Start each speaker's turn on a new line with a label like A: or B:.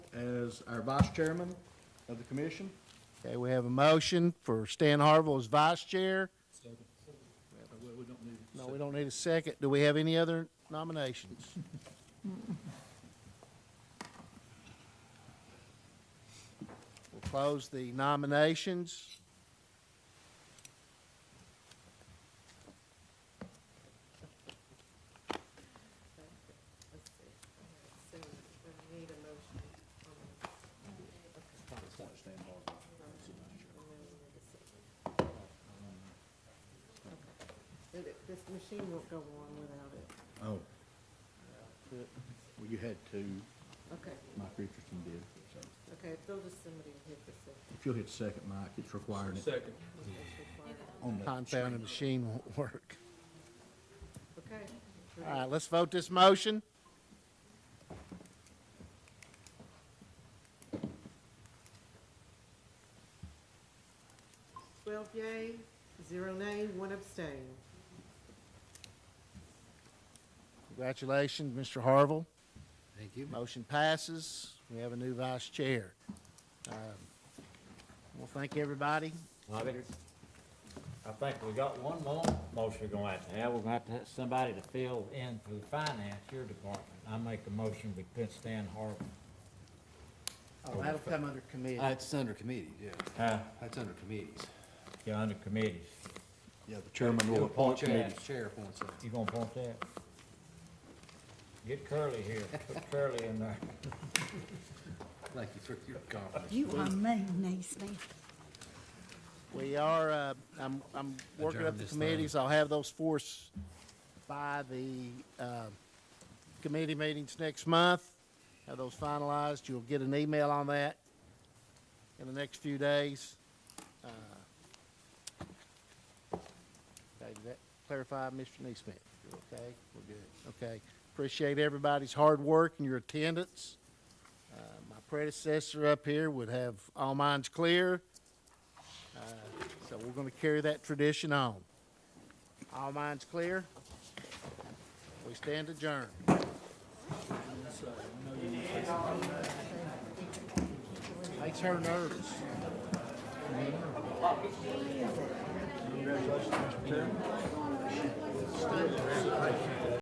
A: as our vice chairman of the commission.
B: Okay, we have a motion for Stan Harville as vice chair. No, we don't need a second. Do we have any other nominations? We'll close the nominations.
C: So we need a motion on the It- it- This machine won't go on without it.
A: Oh. Well, you had two,
C: Okay,
A: Mike Richardson did, so.
C: okay, throw to somebody and hit this one.
A: If you'll hit second, Mike, it's requiring it
D: Second.
C: It's required.
A: on the
B: Confounding machine won't work.
C: Okay.
B: All right, let's vote this motion.
C: Twelve yay, zero nay, one abstain.
B: Congratulations, Mr. Harville.
E: Thank you.
B: Motion passes. We have a new vice chair. Um, Well, thank everybody.
F: I think- I think we got one more motion we're gonna have to have. We're gonna have to have somebody to fill in for the finance, your department. I make a motion with Prince Stan Harvey.
B: Oh, that'll come under committee.
E: That's Uh, under committees, yeah.
F: Huh?
E: That's under committees.
F: You're under committees.
A: Yeah, the chairman will
E: You
A: appoint
E: chair-
A: committees.
E: Chair appoints them.
F: You gonna want that? Get Curly here. Put Curly in there.
E: Thank you for your confidence.
G: You are mean, Easley.
B: We are, uh, I'm, I'm working
E: Adjourn
B: up the
E: this thing.
B: committees. I'll have those for us by the, uh, committee meetings next month. Have those finalized. You'll get an email on that in the next few days. Uh, Okay, did that clarify, Mr. Neesmith? You're okay? We're good. Okay. Appreciate everybody's hard work and your attendance. Uh, my predecessor up here would have all minds clear. So we're gonna carry that tradition on. All minds clear? We stand adjourned. Makes her nervous.